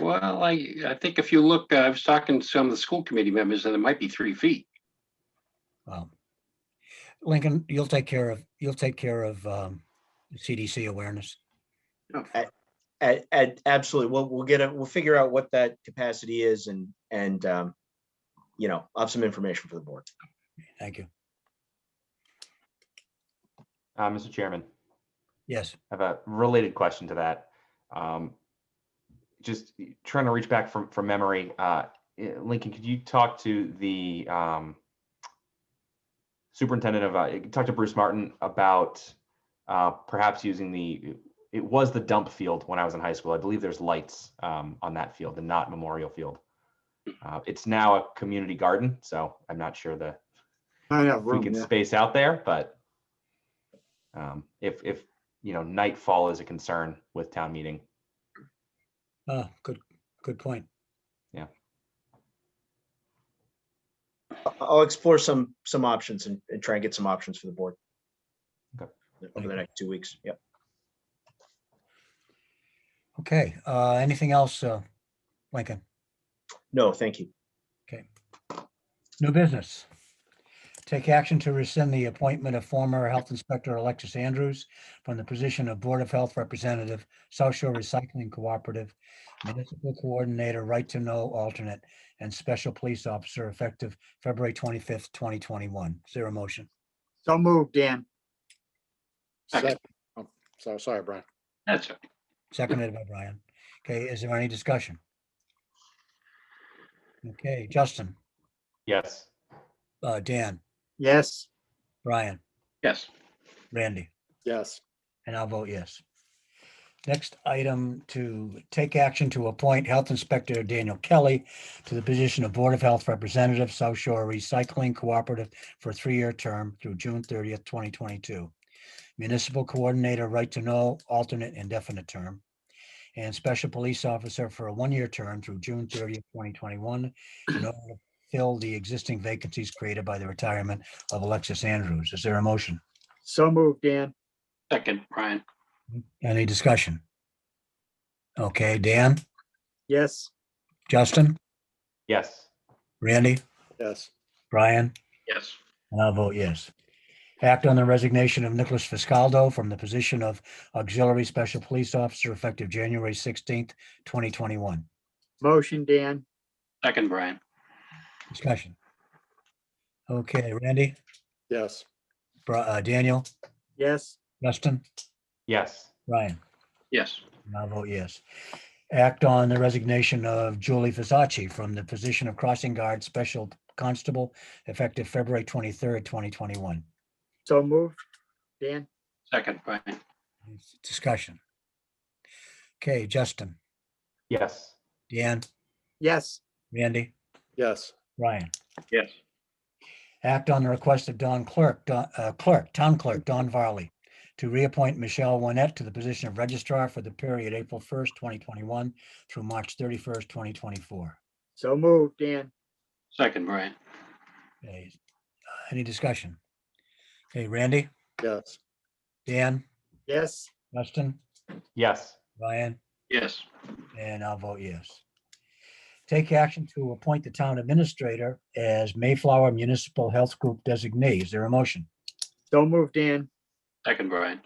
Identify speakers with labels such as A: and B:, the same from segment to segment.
A: Well, I, I think if you look, uh, I was talking to some of the school committee members and it might be three feet.
B: Wow. Um, Lincoln, you'll take care of, you'll take care of um, CDC awareness.
C: A- a- absolutely. We'll, we'll get a, we'll figure out what that capacity is and, and, um, you know, I'll have some information for the board.
B: Thank you.
D: Uh, Mr. Chairman,
B: Yes,
D: I have a related question to that. Um, just trying to reach back from, from memory, uh, eh, Lincoln, could you talk to the, um, superintendent of, uh, eh, talk to Bruce Martin about, uh, perhaps using the, it was the dump field when I was in high school. I believe there's lights, um, on that field and not Memorial Field. Uh, it's now a community garden, so I'm not sure the
E: I have
D: we
E: room,
D: can
E: yeah.
D: space out there, but um, if, if, you know, nightfall is a concern with town meeting,
B: Ah, good, good point.
C: I- I'll explore some, some options and, and try and get some options for the board.
D: Okay.
C: Over the next two weeks. Yep.
B: Okay, uh, anything else, uh, Lincoln?
C: No, thank you.
B: New business. Take action to rescind the appointment of former Health Inspector Alexis Andrews from the position of Board of Health Representative, South Shore Recycling Cooperative, Municipal Coordinator, Right to Know Alternate, and Special Police Officer effective February 25th, 2021. Is there a motion?
E: So moved, Dan.
A: Second.
F: Sec- oh, So, sorry, Brian.
A: That's, it.
B: Seconded by Brian. Okay, is there any discussion? Okay, Justin,
D: yes.
B: uh, Dan,
E: Yes,
B: Brian,
A: yes.
B: Randy.
F: Yes,
B: And I'll vote yes. Next item to take action to appoint Health Inspector Daniel Kelly to the position of Board of Health Representative, South Shore Recycling Cooperative for a three-year term through June thirtieth, twenty twenty-two. Municipal Coordinator, Right to Know, alternate indefinite term. And Special Police Officer for a one-year term through June thirtieth, twenty twenty-one. In order to fill the existing vacancies created by the retirement of Alexis Andrews. Is there a motion?
E: so moved, Dan.
A: Second, Brian,
B: Any discussion? Okay, Dan,
E: Yes,
B: Justin,
D: Yes,
B: Randy,
F: yes,
B: Brian,
A: yes.
B: and I'll vote yes. Act on the resignation of Nicholas Fiscaldo from the position of Auxiliary Special Police Officer effective January sixteenth, twenty twenty-one.
E: motion, Dan.
A: Second, Brian,
B: Discussion. Okay, Randy,
F: yes,
B: Bri- uh, Daniel,
E: Yes,
B: Justin,
D: yes,
B: Brian,
A: yes.
B: and I'll vote yes. Act on the resignation of Julie Fisacci from the position of Crossing Guard Special Constable effective February twenty-third, twenty twenty-one.
E: so moved, Dan.
A: Second, Brian,
B: Discussion. Okay, Justin,
D: yes,
B: Deanne,
E: Yes,
B: Randy,
F: yes,
B: Ryan.
A: yes.
B: Act on the request of Don Clerk, Don- uh, Clerk, Town Clerk Don Varley to reappoint Michelle Winet to the position of Registrar for the period April 1st, 2021 through March 31st, 2024.
E: so moved, Dan.
A: Second, Brian,
B: Okay, uh, Any discussion? Okay, Randy,
F: yes,
B: Dan,
E: Yes,
B: Justin,
D: yes,
B: Ryan.
A: yes.
B: And I'll vote yes. Take action to appoint the town administrator as Mayflower Municipal Health Group designee. Is there a motion?
E: so moved, Dan.
A: Second, Brian.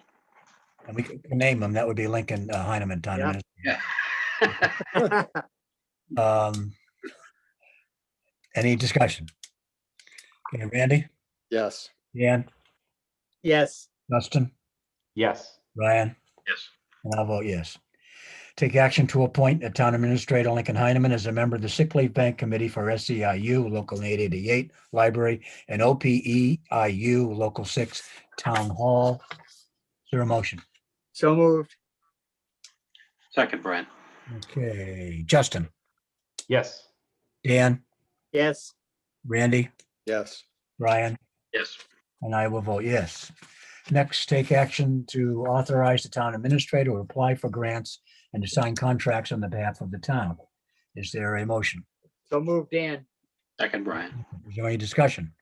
B: And we could name them. That would be Lincoln uh, Heineman Town.
E: Yeah.
B: Adminis- Um, Any discussion? Okay, Randy,
F: yes,
B: Dan,
E: Yes,
B: Dustin,
D: yes,
B: Ryan?
A: Yes.
B: And I'll vote yes. Take action to appoint a town administrator, Lincoln Heineman, as a member of the Sick Leave Bank Committee for SEIU Local 888 Library and OPEIU Local 6 Town Hall. Is there a motion?
E: so moved,
A: Second, Brian,
B: Okay, Justin,
D: yes,
B: Dan,
E: yes,
B: Randy,
F: yes,
B: Brian?
A: yes.
B: And I will vote yes. Next, take action to authorize the town administrator to apply for grants and to sign contracts on the behalf of the town. Is there a motion?
E: so moved, Dan.
A: Second, Brian,
B: Is there any discussion?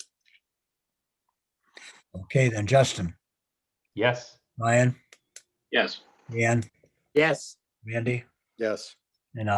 B: Okay, then Justin,
D: yes,
B: Ryan,
A: yes.
B: Ian,
E: Yes,
B: Randy,
F: yes,